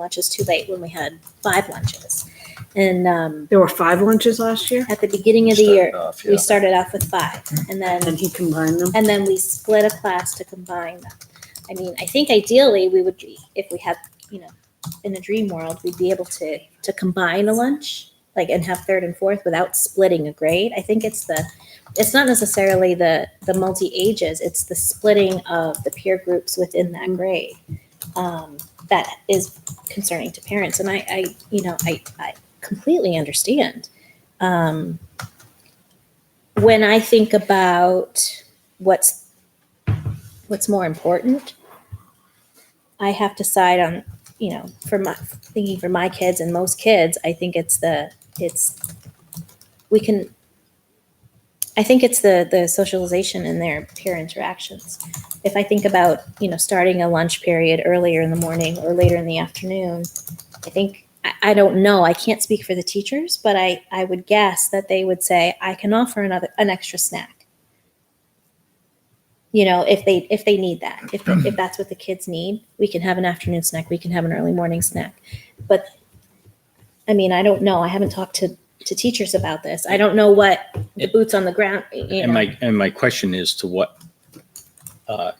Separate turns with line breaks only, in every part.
lunches too late when we had five lunches. And um,
There were five lunches last year,
at the beginning of the
Started
year,
off,
we
yeah.
started off with five and then
and he combined them.
and then we split a class to combine them. I mean, I think ideally we would, be if we had, you know, in a dream world, we'd be able to to combine a lunch, like, and have third and fourth without splitting a grade. I think it's the, it's not necessarily the the multi ages. It's the splitting of the peer groups within that grade um, that is concerning to parents. And I, I, you know, I I completely understand. Um, when I think about what's what's more important i have to side on you know for my thinking for my kids and most kids i think it's the it's we can i think it's the the socialization and their peer interactions if i think about you know starting a lunch period earlier in the morning or later in the afternoon i think I, I don't know i can't speak for the teachers but i i would guess that they would say i can offer another an extra snack you know if they if they need that if if that's what the kids need we can have an afternoon snack we can have an early morning snack but i mean i don't know i haven't talked to to teachers about this i don't know what the boots on the ground you
And
know.
my, and my question is to what, uh,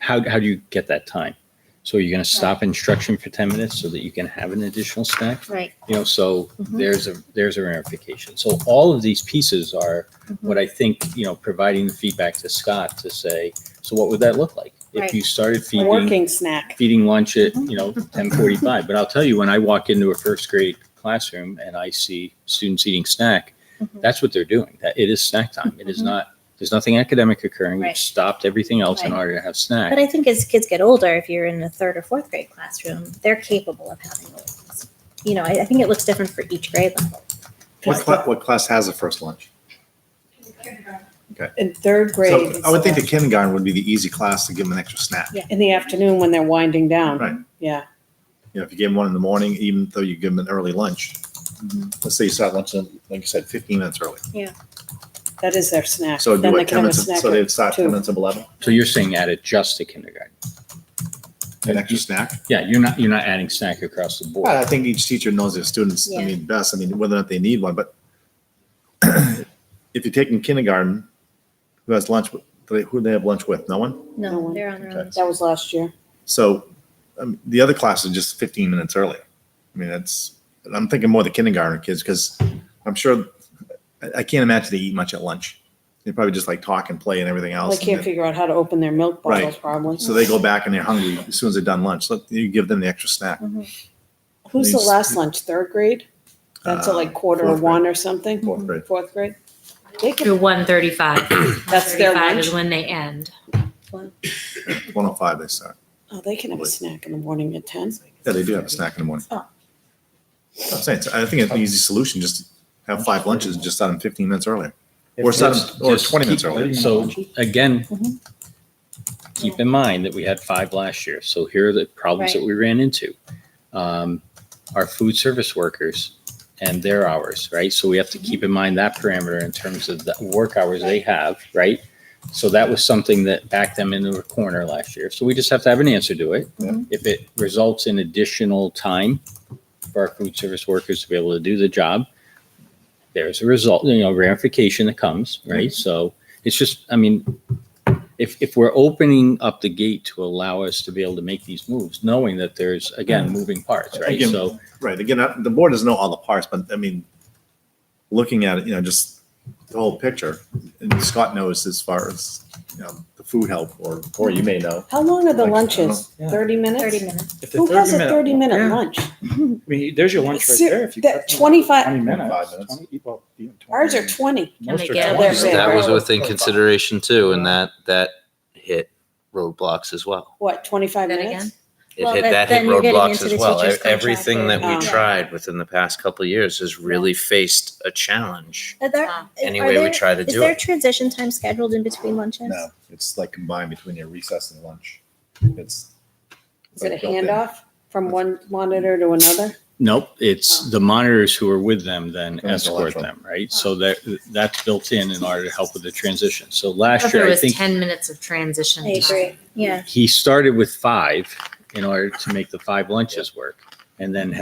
how, how do you get that time? So you're going to stop instruction for 10 minutes so that you can have an additional snack?
right
You know, so
Mhm.
there's a, there's a ramification. So all of these pieces are
Mhm.
what I think, you know, providing the feedback to Scott to say, so what would that look like? If
Right.
you started
A
feeding
working snack.
feeding lunch at you know 10:45. But I'll tell you, when I walk into a first grade classroom and I see students eating snack,
Mhm.
that's what they're doing. That it is snack time. It is
Mhm.
not. There's nothing academic occurring.
Right.
We've stopped everything else in
Right.
order to have
but
snack.
i think as kids get older if you're in a third or fourth grade classroom they're capable of having those you know I, I think it looks different for each grade level
What class, what class has a first lunch?
In third grade.
So I would think the kindergarten would be the easy class to give them an extra snack.
Yeah.
In the afternoon when they're winding down.
Right.
Yeah.
You know, if you give them one in the morning, even though you give them an early lunch,
Mm-hmm.
let's say you start lunch, in, like you said, fifteen minutes early.
That is their snack.
So it'd be
Then they
what,
can have
ten
a
minutes, of-
snack.
so they'd start
two.
ten minutes of eleven,
So you're saying add it just to kindergarten?
an
Mm-hmm.
extra snack.
Yeah, you're not you're not adding snack across the board.
I think each teacher knows their students, I
Yeah.
mean, best, I mean, whether or not they need one, but if you're taking kindergarten, who has lunch, with- do they- who do they have lunch with? No one?
No
no
one.
they're on their own
Okay.
That was last year.
So um, the other class is just fifteen minutes earlier. I mean, that's, I'm thinking more the kindergarten kids, because I'm sure, I, I can't imagine they eat much at lunch. They probably just like talk and play and everything
They
else. and
can't
then-
figure out how to open their milk
Right.
bottles probably.
So they go back and they're hungry as soon as they're done lunch. Let, you give them the extra snack.
Who's the
These-
last lunch? Third grade? That's at like
Uh,
quarter or
fourth grade.
one or something?
Fourth grade.
Fourth grade? They
Through
could,
one thirty-five.
That's their
Is
lunch?
when they end.
One oh five, they start.
oh, they can have a snack in the morning at ten.
Yeah, they do have a snack in the morning.
Oh.
I'm saying, so I think it's an easy solution, just have five lunches, and just start them fifteen minutes earlier. Or
Just-
seven, or
just
twenty minutes
keep-
earlier.
So again,
Mhm.
keep in mind that we had five last year. So here are the problems that
Right.
we ran into. Um, Our food service workers and their hours, right? So we have to keep in mind that parameter in terms of the work hours they have, right? So that was something that backed them into a corner last year. So we just have to have an answer to it.
Yeah.
If it results in additional time for our food service workers to be able to do the job, there's a result, you know, ramification that comes,
Mm-hmm.
right? So it's just, I mean, if, if we're opening up the gate to allow us to be able to make these moves, knowing that there's, again, moving parts, right?
Again-
So,
Right, again, I- the board doesn't know all the parts, but I mean, looking at it, you know, just the whole picture, and Scott knows as far as, you know, the food help, or, or you may know.
How long are the
Like, I
lunches?
don't know. Yeah.
Thirty minutes?
30 minutes
If the
Who has a
30-minute
thirty minute
Yeah.
lunch?
I mean, there's your lunch right
Ser-
there. If you
that
cut them
25
20
25
minutes.
minutes.
20 well, even 20
Ours are
minutes.
twenty.
Can they
Most are
get
20.
They're
That was
Right.
within consideration too, and that, that hit roadblocks as well.
What, twenty-five
That
minutes?
again?
It
Well,
hit,
that-
that
then
hit
you're getting
roadblocks
into the
as well.
teacher's
E- Everything that
contract
we
or- Yeah.
tried within the past couple of years has really faced a challenge
Are there-
Wow.
is-
any
are
way we
there-
try to
Is
do
there
it.
transition time scheduled in between lunches?
No, it's like combined between your recess and lunch. It's.
Is it a
like built in.
handoff from one monitor to another?
nope,
Oh.
it's the monitors who are with them then
Going to
escort
lunch.
them, right? So that, that's built in in order to help with the transition. So last
Thought There
year, I
was
think
ten minutes of transition.
I
time.
agree. Yeah.
he started with five in order to make the five lunches work. and then